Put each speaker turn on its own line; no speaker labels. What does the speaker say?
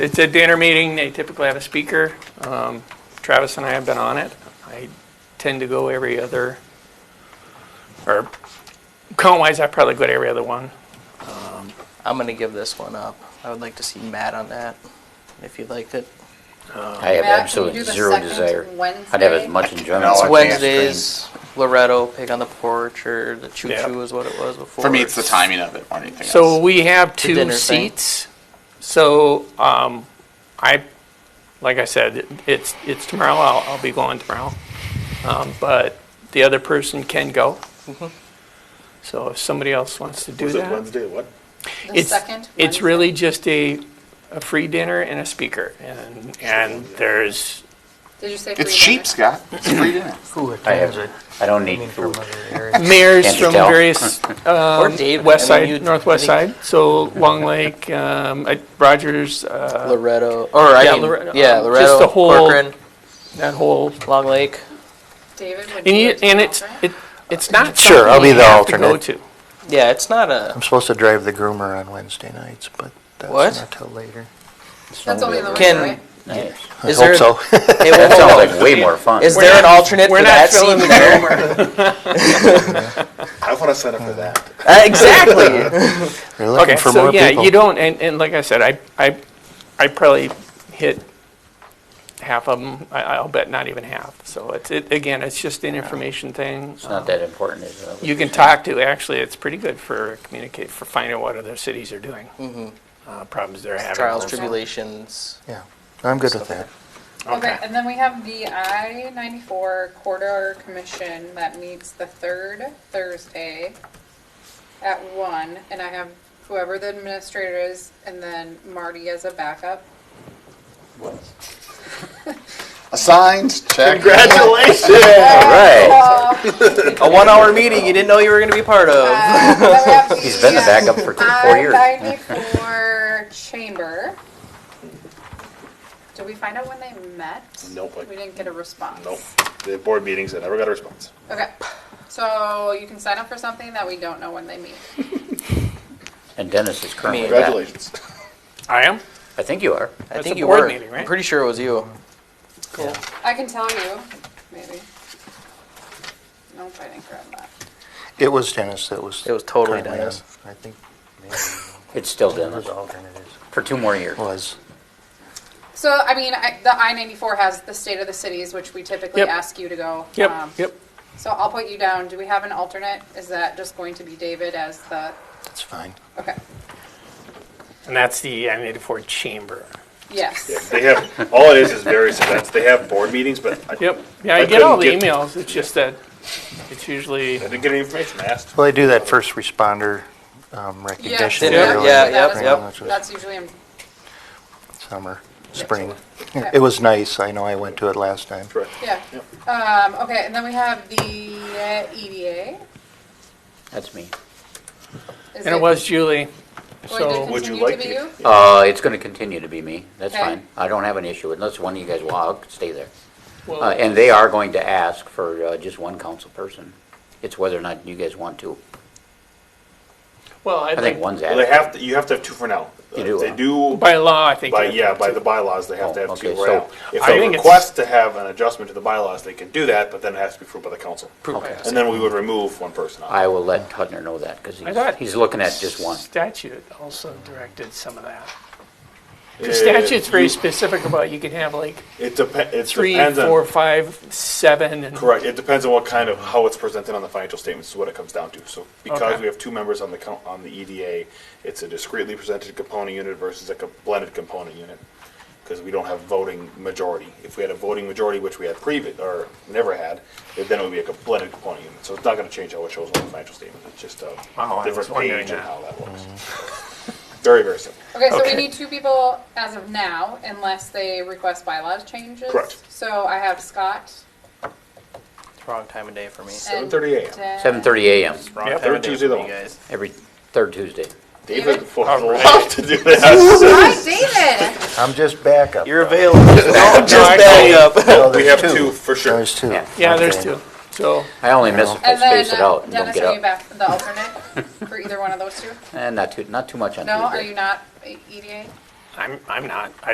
It's a dinner meeting, they typically have a speaker. Um, Travis and I have been on it. I tend to go every other, or count-wise, I probably go to every other one.
I'm gonna give this one up. I would like to see Matt on that, if you'd like it.
I have
Matt, can you
absolutely
do the
zero
second
desire.
Wednesday?
I'd have as much enjoyment.
No, I
as
It's
I
can't
Wednesdays, Loretto, Pig on the Porch, or the Choo
Yeah.
Choo is what it was before.
For me, it's the timing of it more than anything
So
else.
we have two
dinner thing.
seats. So um, I, like I said, it's, it's tomorrow, I'll, I'll be going tomorrow. Um, But the other person can go.
Mm-hmm.
So if somebody else wants to do
Was it
that.
Wednesday, what?
The
it's
second
It's
Wednesday?
really just a, a free dinner and a speaker. And, and there's,
Did you say free
It's cheap,
dinner?
Scott. It's free dinner.
Who
I have it. I don't need
from
food.
other areas.
mayors
Can't you
from
tell?
various uh,
Or David.
west
I mean, you'd-
side, northwest
I
side. So Long Lake, um, I- Rogers, uh,
think Loretto, or I
Yeah,
mean,
Loretto,
yeah,
um, just
Loretto,
the whole-
Corcoran,
that whole
Long Lake.
David would
And
be
you,
a
and
team
it's,
alternate?
it, it's not
Sure,
something
I'll be
you
the
have to go to.
alternate.
Yeah, it's not a.
I'm supposed to drive the groomer on Wednesday nights, but that's
What?
not till later.
That's only in the
Can-
winter, right?
I
Is
hope
there-
so.
Hey, whoa,
That
whoa,
sounds
whoa.
like way more fun.
Is there an alternate
We're
for
not
that
filling
seat?
the room.
I want to sign up for that.
Uh, exactly.
They're looking
Okay,
for
so
more
yeah,
people.
you don't, and, and like I said, I, I, I probably hit half of them, I, I'll bet not even half. So it's, it, again, it's just an information thing.
It's not that important, is it?
You can talk to, actually, it's pretty good for communicate, for finding out what other cities are doing.
Mm-hmm.
Uh, problems they're having.
Trials, tribulations.
Yeah, I'm good with that.
Okay, and then we have the I-94 Corridor Commission that meets the third Thursday at one, and I have whoever the administrator is, and then Marty as a backup.
Assigned, check.
All right.
Uh,
A
Oh.
one-hour meeting you didn't know you were going to be part of.
Uh,
He's been the backup for two, four years.
I-94 Chamber. Did we find out when they met?
Nope, I-
We didn't get a response.
Nope. The board meetings, I never got a response.
Okay, so you can sign up for something that we don't know when they meet.
And Dennis is currently that.
Congratulations.
I am?
I think you are.
I
That's
think
a
you
board
were.
meeting, right?
I'm pretty sure it was you.
Cool.
I can tell you, maybe. Nope, I didn't grab that.
It was Dennis that was.
It was totally
currently on.
Dennis.
I think maybe
It's still
it
Dennis
was alternate is-
for two more years.
was.
So, I mean, I, the I ninety-four has the state of the cities, which we typically
Yep.
ask you to go.
Yep,
Um,
yep.
So I'll put you down. Do we have an alternate? Is that just going to be David as the,
That's fine.
okay,
And that's the I eighty-four chamber.
yes.
They have, all it is is various events. They have board meetings, but I I
Yep, yeah, I
I
get all the
couldn't get-
emails, it's just that it's usually.
didn't get any information. I asked.
Well, I do that first responder um, recognition
Yeah,
early
yeah,
in the
yep,
spring,
yep.
which was
That's usually, in-
Summer, spring.
okay.
It was nice. I know I went to it last time.
Correct.
yeah. Um, okay, and then we have the uh, EDA.
That's me.
Is
And it was Julie,
Going
so,
to
Would
continue
you
to
like
be
to-
you?
Uh, it's gonna continue to be me. That's
Okay.
fine. I don't have an issue unless one of you guys, well, I'll stay there.
well,
Uh, and they are going to ask for, uh, just one council person. It's whether or not you guys want to.
well, I
I think
think,
one's
Well, they
asked.
have, to- you have to have two for now.
You do,
They
huh?
do,
by law, I think.
by,
you
yeah,
have
by
to-
the bylaws, they have to
Oh,
have two
okay,
right now.
so
If
I
they
think it's-
request to have an adjustment to the bylaws, they can do that, but then it has to be approved by the council.
Okay.
And then we would remove one person. off.
I will let Tudner know that, cause
I thought-
he's, he's looking at just one.
Statute also directed some of that.
Uh,
The statute's
you-
very specific about you can have like
It depends, it
three,
depends on.
four, five, seven, and.
Correct. It depends on what kind of, how it's presented on the financial statements is what it comes down to. So because
Okay.
we have two members on the, co- on the EDA, it's a discreetly presented component unit versus a co- blended component unit. Because we don't have voting majority. If we had a voting majority, which we had previous, or never had, then it would be a co- blended component unit. So it's not gonna change how it shows on the financial statement. It's just a
Wow, I was
different
wondering
page and
that.
how that looks. Very, very simple.
Okay, so we
Okay.
need two people as of now, unless they request bylaws changes.
Correct.
So I have Scott.
It's wrong time of day for me.
and
7:30 a.m.
Dan.
Seven thirty AM,
Wrong
Yep.
time
Third
of day
Tuesday
for
of
you
the month.
guys.
every third Tuesday.
David
David?
would love to do that.
Hi, David.
I'm just backup.
You're available. Don't just
I
bang up.
Oh,
We
there's
have two, for sure.
There's two.
Yeah.
Yeah, there's
Okay.
two. So,
I only miss if I
And then
space it out
uh,
and don't
Dennis,
get
are you
up.
back the alternate for either one of those two?
And not too, not too much on
No,
Tuesday.
are you not EDA?
I'm, I'm not, I